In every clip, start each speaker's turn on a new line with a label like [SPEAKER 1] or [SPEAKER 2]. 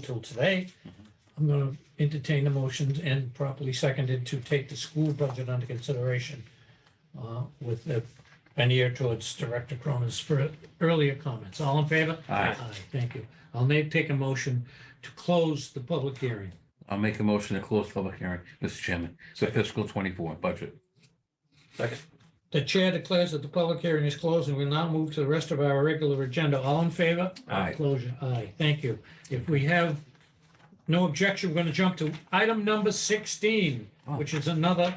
[SPEAKER 1] until today. I'm going to entertain the motions and properly seconded to take the school budget under consideration uh, with the, an ear towards Director Cronin's fir- earlier comments. All in favor?
[SPEAKER 2] Aye.
[SPEAKER 1] Thank you. I'll now take a motion to close the public hearing.
[SPEAKER 2] I'll make a motion to close public hearing, Mr. Chairman, for fiscal twenty-four budget.
[SPEAKER 3] Second.
[SPEAKER 1] The chair declares that the public hearing is closed and we'll now move to the rest of our regular agenda. All in favor?
[SPEAKER 2] Aye.
[SPEAKER 1] Closure, aye. Thank you. If we have no objection, we're going to jump to item number 16,
[SPEAKER 2] Oh.
[SPEAKER 1] which is another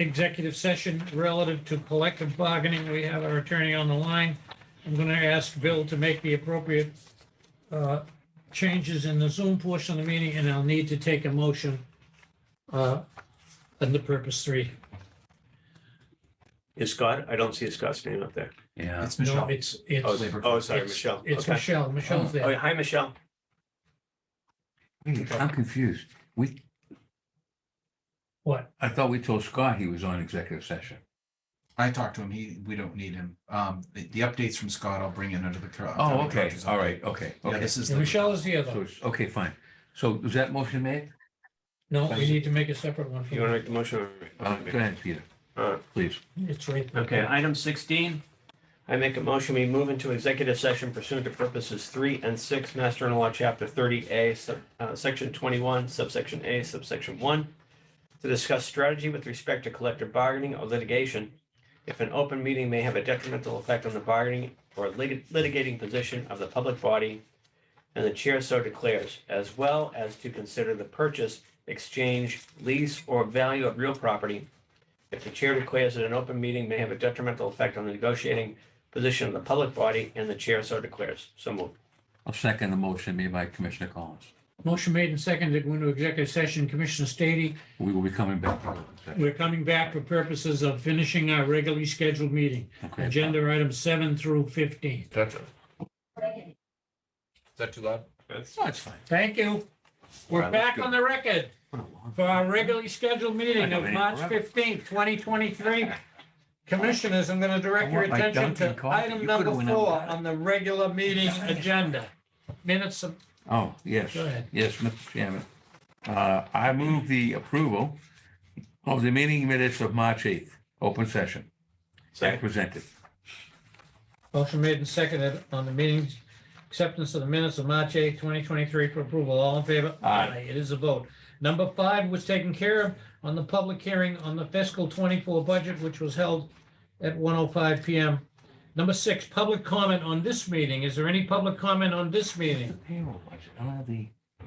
[SPEAKER 1] executive session relative to collective bargaining. We have our attorney on the line. I'm going to ask Bill to make the appropriate uh, changes in the Zoom portion of the meeting, and I'll need to take a motion uh, under purpose three.
[SPEAKER 3] Is Scott? I don't see Scott's name up there.
[SPEAKER 2] Yeah,
[SPEAKER 4] It's
[SPEAKER 1] No,
[SPEAKER 4] Michelle.
[SPEAKER 1] it's, it's.
[SPEAKER 3] Oh, they- oh, sorry,
[SPEAKER 1] it's-
[SPEAKER 3] Michelle.
[SPEAKER 1] It's
[SPEAKER 3] Okay.
[SPEAKER 1] Michelle. Michelle's
[SPEAKER 3] Oh, yeah,
[SPEAKER 1] there.
[SPEAKER 3] hi, Michelle.
[SPEAKER 2] I'm confused. We,
[SPEAKER 1] What?
[SPEAKER 2] I thought we told Scott he was on executive session.
[SPEAKER 4] I talked to him. He, we don't need him. Um, the, the updates from Scott, I'll bring in under the. cur-
[SPEAKER 2] Oh,
[SPEAKER 4] upcoming
[SPEAKER 2] okay,
[SPEAKER 4] director's
[SPEAKER 2] all
[SPEAKER 4] update.
[SPEAKER 2] right, okay,
[SPEAKER 4] Yeah,
[SPEAKER 2] okay.
[SPEAKER 4] this is.
[SPEAKER 1] Yeah,
[SPEAKER 4] the-
[SPEAKER 1] Michelle is here
[SPEAKER 2] So,
[SPEAKER 1] though.
[SPEAKER 2] it's- okay, fine. So was that motion made?
[SPEAKER 1] No, we need to make a separate one for
[SPEAKER 3] You want
[SPEAKER 1] you.
[SPEAKER 3] to make the motion? or-
[SPEAKER 2] Uh, Go ahead, Peter,
[SPEAKER 3] Uh,
[SPEAKER 2] please.
[SPEAKER 1] It's right there.
[SPEAKER 3] Okay, item sixteen, I make a motion, we move into executive session pursuant to purposes three and six, Master and Law, Chapter thirty A, sub, uh, section twenty-one, subsection A, subsection one, to discuss strategy with respect to collective bargaining or litigation. If an open meeting may have a detrimental effect on the bargaining or lit- litigating position of the public body, and the chair so declares, as well as to consider the purchase, exchange, lease, or value of real property if the chair declares that an open meeting may have a detrimental effect on the negotiating position of the public body and the chair so declares. So moved.
[SPEAKER 2] I'll second the motion made by Commissioner Collins.
[SPEAKER 1] Motion made and seconded, go into executive session. Commissioner Stady,
[SPEAKER 2] We will be coming back. to open session.
[SPEAKER 1] we're coming back for purposes of finishing our regularly scheduled meeting.
[SPEAKER 2] Okay.
[SPEAKER 1] Agenda items seven through 15.
[SPEAKER 4] Is that too loud?
[SPEAKER 2] No, it's fine.
[SPEAKER 1] Thank you.
[SPEAKER 2] All
[SPEAKER 1] We're
[SPEAKER 2] right, let's
[SPEAKER 1] back
[SPEAKER 2] go.
[SPEAKER 1] on the record for our regularly scheduled meeting of
[SPEAKER 2] I know,
[SPEAKER 1] March
[SPEAKER 2] forever.
[SPEAKER 1] 15th, 2023. Commissioners, I'm going to direct
[SPEAKER 2] I
[SPEAKER 1] your
[SPEAKER 2] want my
[SPEAKER 1] attention to
[SPEAKER 2] Dunkin' coffee.
[SPEAKER 1] item
[SPEAKER 2] You could've
[SPEAKER 1] number
[SPEAKER 2] went out
[SPEAKER 1] four
[SPEAKER 2] with that.
[SPEAKER 1] on the regular meeting agenda. Minutes of
[SPEAKER 2] Oh, yes.
[SPEAKER 1] Go ahead.
[SPEAKER 2] Yes, Mr. Chairman. Uh, I move the approval of the meeting minutes of March 8th, open session, as
[SPEAKER 3] Second.
[SPEAKER 2] presented.
[SPEAKER 1] Motion made and seconded on the meetings, acceptance of the minutes of March 8, 2023 for approval. All in favor?
[SPEAKER 2] Aye.
[SPEAKER 1] It is a vote. Number five was taken care of on the public hearing on the fiscal 24 budget, which was held at 1:05 PM. Number six, public comment on this meeting. Is there any public comment on this meeting?
[SPEAKER 2] Payroll budget, I don't have the-
[SPEAKER 3] Yeah.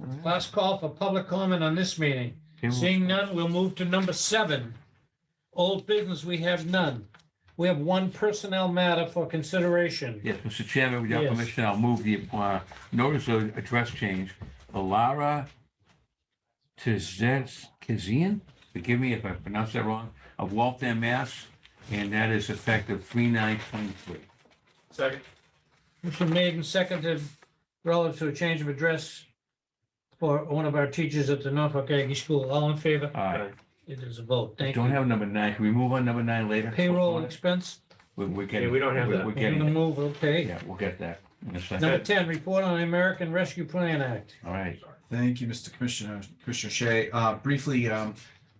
[SPEAKER 2] I don't have the
[SPEAKER 1] Last call for public comment on this meeting.
[SPEAKER 2] payroll-
[SPEAKER 1] Seeing none, we'll move to number seven. Old business, we have none. We have one personnel matter for consideration.
[SPEAKER 2] Yes, Mr. Chairman, with your
[SPEAKER 1] Yes.
[SPEAKER 2] permission, I'll move the uh, notice of address change. Alara Tizet Kizian, forgive me if I pronounced that wrong, of Waltham, Mass. And that is effective 3/9/23.
[SPEAKER 3] Second.
[SPEAKER 1] Motion made and seconded relative to a change of address for one of our teachers at the Norfolk Aggie School. All in favor?
[SPEAKER 2] Aye.
[SPEAKER 1] It is a vote. Thank
[SPEAKER 2] Don't
[SPEAKER 1] you.
[SPEAKER 2] have number nine. Can we move on number nine later?
[SPEAKER 1] Payroll expense,
[SPEAKER 2] We- We're
[SPEAKER 3] Yeah,
[SPEAKER 2] getting.
[SPEAKER 3] we don't have
[SPEAKER 2] we're-
[SPEAKER 3] that.
[SPEAKER 2] We're
[SPEAKER 1] we're gonna
[SPEAKER 2] getting,
[SPEAKER 1] move, okay.
[SPEAKER 2] yeah, we'll get that in a second.
[SPEAKER 1] Number 10, report on the American Rescue Plan Act.
[SPEAKER 2] All right.
[SPEAKER 4] Thank you, Mr. Commissioner, Commissioner Shea. Uh, briefly, um,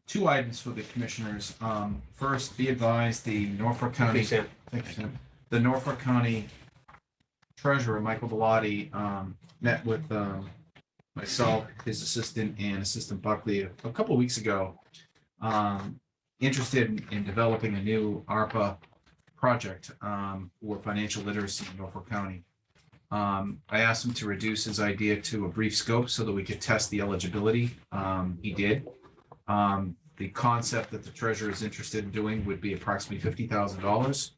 [SPEAKER 4] two items for the commissioners. Um, first, be advised, the Norfolk County.
[SPEAKER 3] Okay, Sam.
[SPEAKER 4] Thanks, Tim. The Norfolk County Treasurer, Michael Bellotti, um, met with, um, myself, his assistant and Assistant Buckley a a couple weeks ago. Um, interested in- in developing a new ARPA project, um, for financial literacy in Norfolk County. Um, I asked him to reduce his idea to a brief scope so that we could test the eligibility. Um, he did. Um, the concept that the treasurer is interested in doing would be approximately fifty thousand dollars.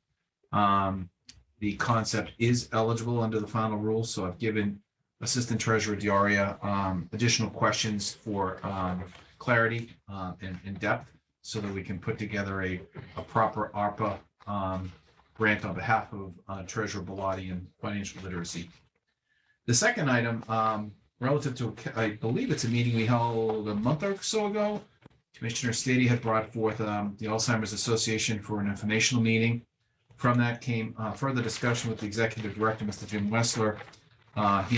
[SPEAKER 4] Um, the concept is eligible under the final rules, so I've given Assistant Treasurer Diaria, um, additional questions for, um, clarity, um, and, and depth so that we can put together a, a proper ARPA, um, grant on behalf of, uh, Treasurer Bellotti and financial literacy. The second item, um, relative to, I believe it's a meeting we held a month or so ago. Commissioner Stady had brought forth, um, the Alzheimer's Association for an informational meeting. From that came uh, further discussion with the executive director, Mr. Jim Wessler. Uh, He